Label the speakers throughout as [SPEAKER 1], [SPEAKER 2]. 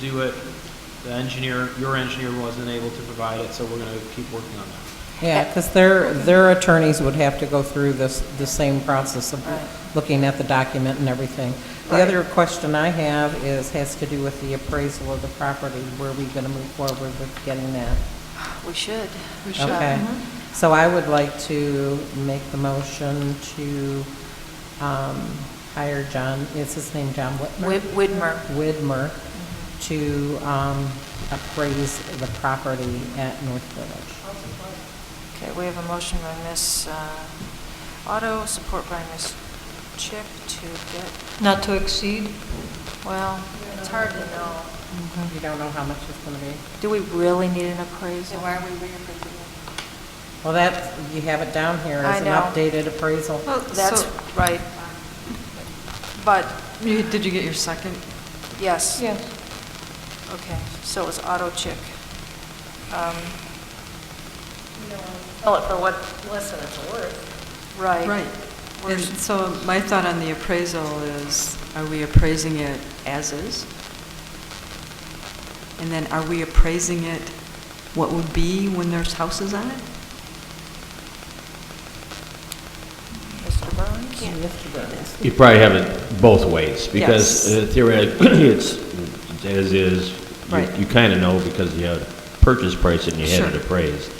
[SPEAKER 1] do it. The engineer, your engineer wasn't able to provide it, so we're going to keep working on that.
[SPEAKER 2] Yeah, because their, their attorneys would have to go through this, the same process of
[SPEAKER 3] Right.
[SPEAKER 2] looking at the document and everything. The
[SPEAKER 3] Right.
[SPEAKER 2] other question I have is, has to do with the appraisal of the property. Were we going to move forward with getting that?
[SPEAKER 3] We should. We
[SPEAKER 2] Okay.
[SPEAKER 3] Mm-hmm.
[SPEAKER 2] So I would like to make the motion to um, hire John, is his name John Whitmer?
[SPEAKER 3] Widmer.
[SPEAKER 2] Widmer
[SPEAKER 3] Mm-hmm.
[SPEAKER 2] to um, appraise the property at North Village.
[SPEAKER 3] Okay, we have a motion by Ms. uh, Otto, support by Ms. Chick to get,
[SPEAKER 4] Not to exceed?
[SPEAKER 3] well, it's hard to know.
[SPEAKER 2] You don't know how much it's going to be?
[SPEAKER 3] Mm-hmm. Do we really need an appraisal?
[SPEAKER 4] are we reapproving?
[SPEAKER 2] Well, that, you have it down here
[SPEAKER 3] I
[SPEAKER 2] as an
[SPEAKER 3] know.
[SPEAKER 2] updated appraisal.
[SPEAKER 4] Well,
[SPEAKER 3] That's
[SPEAKER 4] So-
[SPEAKER 3] right. But,
[SPEAKER 4] You, did you get your second?
[SPEAKER 3] yes.
[SPEAKER 4] Yes.
[SPEAKER 3] Okay, so it was Otto Chick. Um, Sell it for what, less than it's worth. Right.
[SPEAKER 4] Right. And
[SPEAKER 3] We're-
[SPEAKER 4] so my thought on the appraisal is, are we appraising it as is? And then are we appraising it what would be when there's houses on it?
[SPEAKER 3] Mr. Burns?
[SPEAKER 2] Mr. Burns.
[SPEAKER 5] You probably have it both ways,
[SPEAKER 4] Yes.
[SPEAKER 5] because uh, theoretically, it's as is. You-
[SPEAKER 4] Right.
[SPEAKER 5] You kind of know because you had purchase price and you had
[SPEAKER 4] Sure.
[SPEAKER 5] it appraised.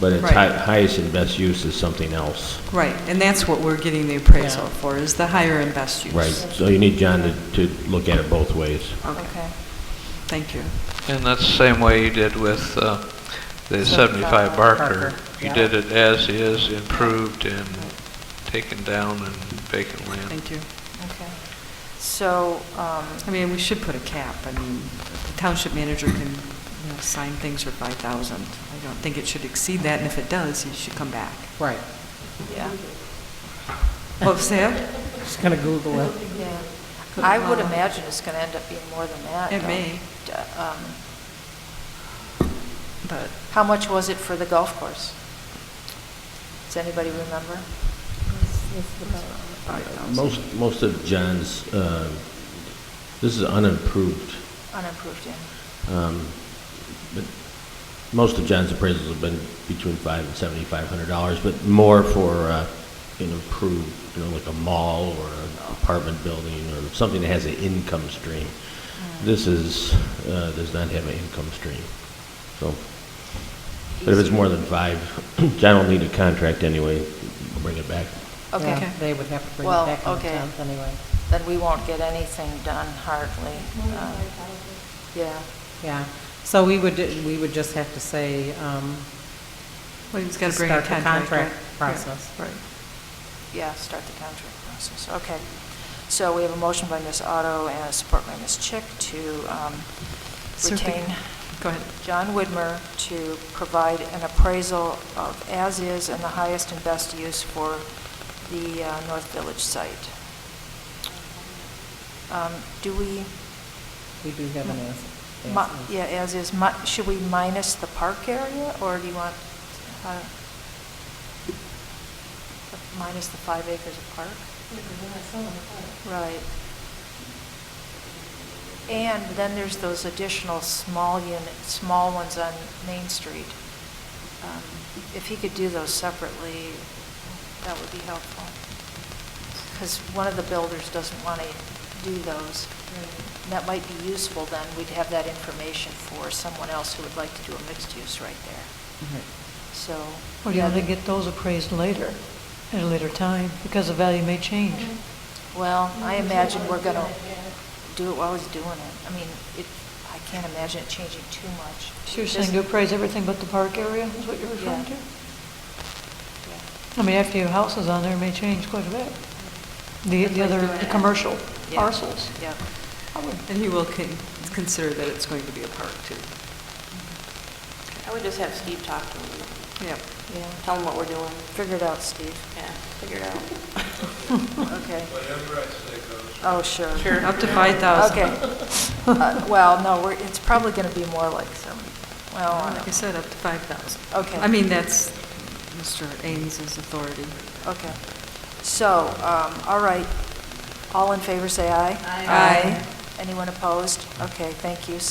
[SPEAKER 5] But its
[SPEAKER 4] Right.
[SPEAKER 5] hi- highest and best use is something else.
[SPEAKER 4] Right, and that's what we're getting the appraisal
[SPEAKER 2] Yeah.
[SPEAKER 4] for, is the higher and best use.
[SPEAKER 5] Right, so you need John to, to look at it both ways.
[SPEAKER 4] Okay,
[SPEAKER 3] Okay.
[SPEAKER 4] thank you.
[SPEAKER 6] And that's the same way you did with uh, the
[SPEAKER 2] Barker,
[SPEAKER 6] 75 Barker.
[SPEAKER 2] yeah.
[SPEAKER 6] You did it as is, improved and taken down and vacant land.
[SPEAKER 4] Thank you.
[SPEAKER 3] Okay. So, um,
[SPEAKER 4] I mean, we should put a cap. I mean, the township manager can, you know, sign things for 5,000. I don't think it should exceed that, and if it does, he should come back.
[SPEAKER 2] Right.
[SPEAKER 3] yeah,
[SPEAKER 4] What was that?
[SPEAKER 2] Just going to Google it.
[SPEAKER 3] yeah. I would imagine it's going to end up being more than that.
[SPEAKER 4] It
[SPEAKER 3] though.
[SPEAKER 4] may.
[SPEAKER 3] D- um,
[SPEAKER 4] But,
[SPEAKER 3] How much was it for the golf course? Does anybody remember?
[SPEAKER 5] Most, most of John's, uh, this is unimproved,
[SPEAKER 3] Unimproved, yeah.
[SPEAKER 5] um, but most of John's appraisals have been between five and seventy-five hundred dollars, but more for uh, an improved, you know, like a mall or an apartment building or something that has an income stream. This is, uh, does not have an income stream, so. But if it's more than five, John will need a contract anyway, bring it back.
[SPEAKER 3] Okay,
[SPEAKER 2] Yeah, They would have to bring it
[SPEAKER 3] Well,
[SPEAKER 2] back on the
[SPEAKER 3] okay.
[SPEAKER 2] 10th anyway.
[SPEAKER 3] then we won't get anything done hardly. um, Yeah,
[SPEAKER 2] Yeah. So we would, we would just have to say, um,
[SPEAKER 4] well, he's got to bring a
[SPEAKER 2] Start the
[SPEAKER 4] contract.
[SPEAKER 2] contract
[SPEAKER 4] right?
[SPEAKER 2] process.
[SPEAKER 4] Yeah, Right.
[SPEAKER 3] yeah, start the contract process, okay. So we have a motion by Ms. Otto and a support by Ms. Chick to um,
[SPEAKER 4] So if we-
[SPEAKER 3] retain
[SPEAKER 4] Go ahead.
[SPEAKER 3] John Widmer to provide an appraisal of as-is and the highest and best use for the uh, North Village site. Um, Do we,
[SPEAKER 2] we do have an
[SPEAKER 3] mi-
[SPEAKER 2] answer.
[SPEAKER 3] yeah, as-is, mi- should we minus the park area, or do you want, uh, minus the five acres of park? Right. And then there's those additional small unit, small ones on Main Street. Um, If he could do those separately, that would be helpful. Because one of the builders doesn't want to do those. And That might be useful then, we'd have that information for someone else who would like to do a mixed use right there. So.
[SPEAKER 7] Or do you have to get those appraised later, at a later time, because the value may change?
[SPEAKER 3] Mm-hmm. Well, I imagine we're going to do it while he's doing it. I mean, it, I can't imagine it changing too much.
[SPEAKER 7] So you're saying to appraise everything but the park area, is what you're referring
[SPEAKER 3] Yeah.
[SPEAKER 7] to? I mean, after your house is on there, it may change quite a bit. The, the other, the commercial
[SPEAKER 3] Yeah.
[SPEAKER 7] parcels.
[SPEAKER 3] Yeah,
[SPEAKER 4] And he will con- consider that it's going to be a park, too.
[SPEAKER 8] I would just have Steve talk to him,
[SPEAKER 4] Yeah.
[SPEAKER 3] yeah.
[SPEAKER 8] tell him what we're doing,
[SPEAKER 3] Figure it out, Steve.
[SPEAKER 8] yeah, figure it out.
[SPEAKER 3] Okay. Oh, sure.
[SPEAKER 8] Sure.
[SPEAKER 4] Up to 5,000.
[SPEAKER 3] Okay. Uh, Well, no, we're, it's probably going to be more like some, well, I
[SPEAKER 4] Like I
[SPEAKER 3] don't-
[SPEAKER 4] said, up to 5,000.
[SPEAKER 3] Okay.
[SPEAKER 4] I mean, that's Mr. Ames's authority.
[SPEAKER 3] okay. So, um, all right. All in favor, say aye.
[SPEAKER 4] Aye. Aye.
[SPEAKER 3] Anyone opposed? Okay, thank you.